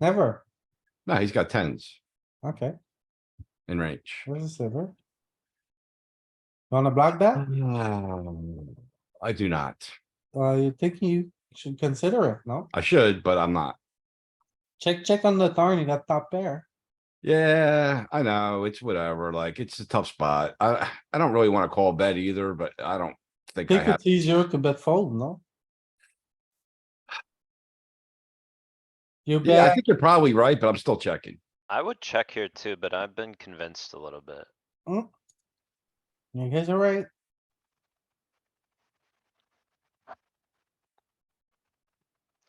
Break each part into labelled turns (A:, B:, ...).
A: Never.
B: No, he's got tens
A: Okay,
B: in range.
A: where's the silver? Wanna block
B: Mm.
A: that?
B: Um, I do not.
A: Uh, you think you should consider it, no?
B: I should, but I'm not.
A: Check, check on the turn, you got top pair.
B: Yeah, I know. It's whatever. Like, it's a tough spot. I, I don't really wanna call bet either, but I don't think I
A: Think
B: have.
A: it's easier to bet fold, no? You
B: Yeah, I
A: bet,
B: think you're probably right, but I'm still checking.
C: I would check here too, but I've been convinced a little bit.
A: you guys are right.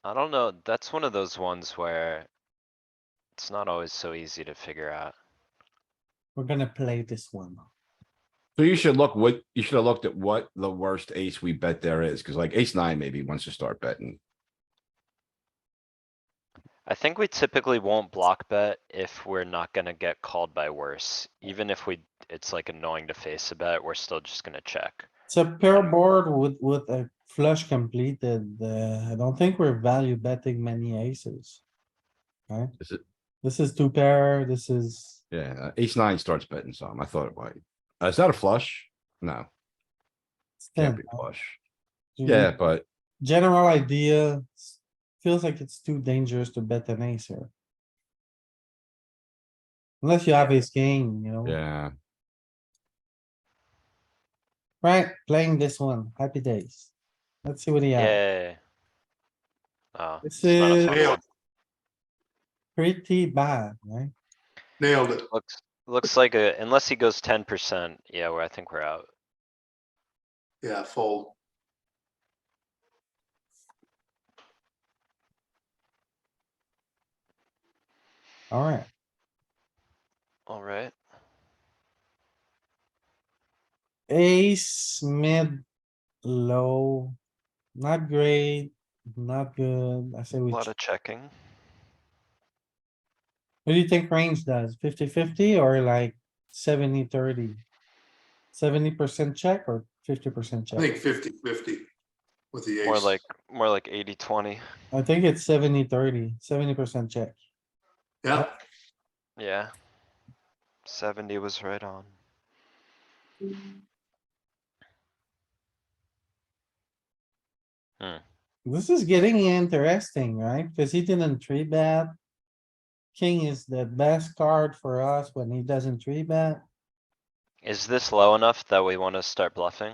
C: I don't know, that's one of those ones where it's not always so easy to figure out.
A: We're gonna play this one.
B: So you should look what, you should have looked at what the worst ace we bet there is, cuz like ace nine maybe wants to start betting.
C: I think we typically won't block bet if we're not gonna get called by worse. Even if we, it's like annoying to face a bet, we're still just gonna check.
A: It's a pair board with, with a flush completed. Uh, I don't think we're value betting many aces. Right?
B: Is it-
A: This is two pair, this is,
B: Yeah, uh, ace nine starts betting some. I thought it might. Uh, Is that a flush? No,
A: it's ten.
B: can't be a
A: right?
B: flush.
A: You
B: Yeah,
A: know,
B: but
A: General idea, s- feels like it's too dangerous to bet an ace here. Unless you have ace king, you know,
B: yeah,
A: right, playing this one, happy days. Let's see what he has.
C: Yay. Oh,
A: This
C: it's not a
A: is
C: fun
D: Eh, Nailed,
C: one.
A: pretty bad, right?
D: nailed it.
C: Looks, looks like a, unless he goes ten percent, yeah, where I think we're out.
D: Yeah, fold.
A: Alright,
C: Alright,
A: ace, mid, low, not great, not good. I say
C: a
A: we,
C: lot
A: ch-
C: of checking.
A: what do you think range does? 50-50 or like 70-30? Seventy percent check or fifty percent
D: I
A: check?
D: think 50 50 with the ace.
C: More like, more like eighty, twenty.
A: I think it's 70-30, 70 percent check.
D: Yeah,
C: Yeah. Seventy was right on.
A: This is getting interesting, right? Cuz he didn't three bet. King is the best card for us when he doesn't three bet.
C: Is this low enough that we wanna start bluffing?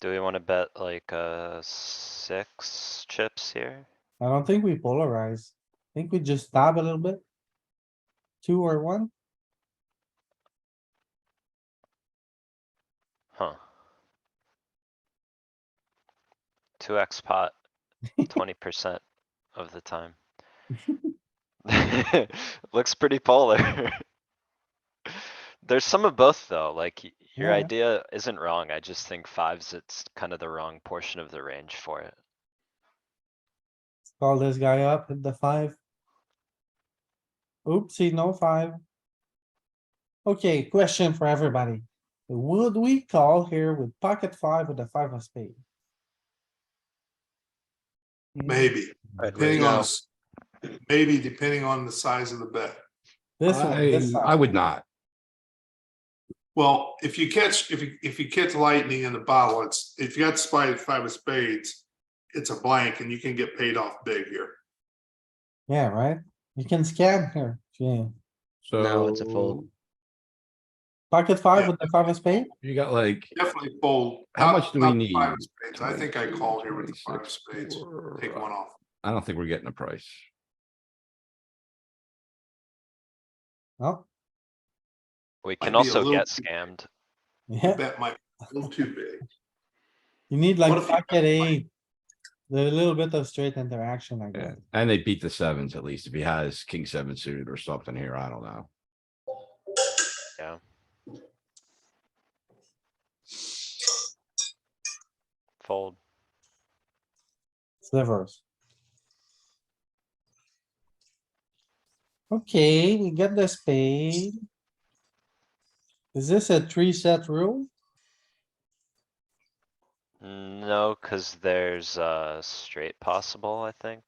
C: Do we wanna bet like, uh, six chips here?
A: I don't think we polarize. I think we just stab a little bit. Two or one?
C: Huh. Two X pot, twenty percent of the time. Looks pretty polar. There's some of both, though, like y- your
A: Yeah.
C: idea isn't wrong, I just think fives, it's kind of the wrong portion of the range for it.
A: Call this guy up, hit the five. Oopsie, no five. Okay, question for everybody. Would we call here with pocket five with a five of spade? Hmm,
D: maybe, depending on, s- maybe depending on the size of the bet.
A: This one,
B: I,
A: this
B: I
A: side.
B: would not.
D: Well, if you catch, if you, if you catch lightning in the bottle, it's, if you got spade, five of spades, it's a blank and you can get paid off big here.
A: Yeah, right? You can scan here. Yeah.
B: So.
C: No, it's a fold.
A: Pocket five
D: Yeah.
A: with the five of spade?
B: You got like.
D: Definitely fold.
B: How
D: Not-
B: much do we
D: not the five of
B: need?
D: spades. I think I call here with the five of
B: 26,
D: spades.
B: four.
D: Take one off.
B: I don't think we're getting a price.
A: No?
C: We can
D: be a
C: also
D: little
C: get
D: too
C: scammed.
A: Yeah,
D: Bet might be a little too big.
A: you need
D: What
A: like
D: if you have
A: pocket eight. A little bit of straight interaction, I
B: Yeah,
A: guess.
B: and they beat the sevens at least if he has king seven suited or something here. I don't know.
C: Fold.
A: Slivers. Okay, we get the spade. Is this a three set rule?
C: No, cuz there's, uh, straight possible, I think.